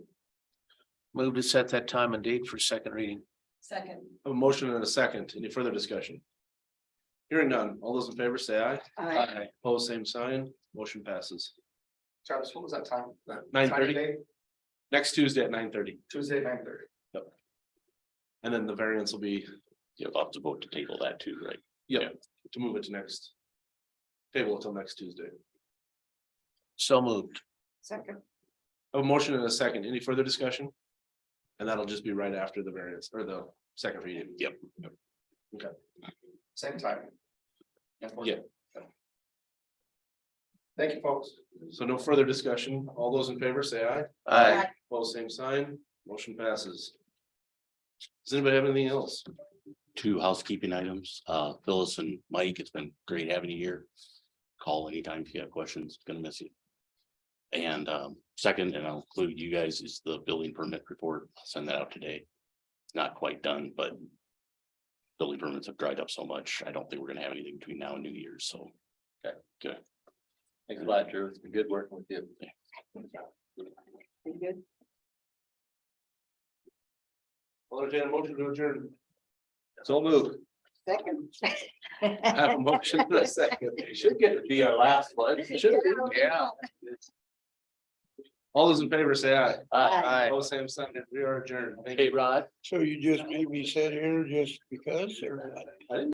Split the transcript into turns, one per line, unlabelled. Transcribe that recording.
Move to set that time and date for second reading.
Second.
I have A motion and a second. Any further discussion? Hearing none. All those in favor say aye.
Aye.
Pose same sign. Motion passes.
Travis, what was that time? That
9:30?
time of day?
Next Tuesday at nine thirty,
Tuesday, nine thirty.
and then the variance will be
You'll have to vote to table that too, right?
to move it to next. Table until next Tuesday.
So moved.
Second.
I have A motion and a second. Any further discussion? And that'll just be right after the variance or the second reading. Yep.
Same time.
Yeah.
Thank you, folks.
So no further discussion. All those in favor say aye.
Aye.
Pose same sign. Motion passes. Does anybody have anything else?
Two housekeeping items, uh, Phyllis and Mike, it's been great having you here. Call anytime if you have questions, gonna miss you. And, um, second, and I'll include you guys, is the building permit report, I'll send that out today. Not quite done, but. Building permits have dried up so much, I don't think we're gonna have anything between now and New Year's, so.
Thanks a lot, Drew. It's been good working with you.
You good?
I'll entertain a motion to adjourn. So moved. I have a
Second.
motion and a second.
Should get to be our last one.
Yeah. All those in favor say aye.
Uh,
Aye.
All same sign. We are adjourned. Thank you.
Hey, Rod.
So you just made me sit here just because or?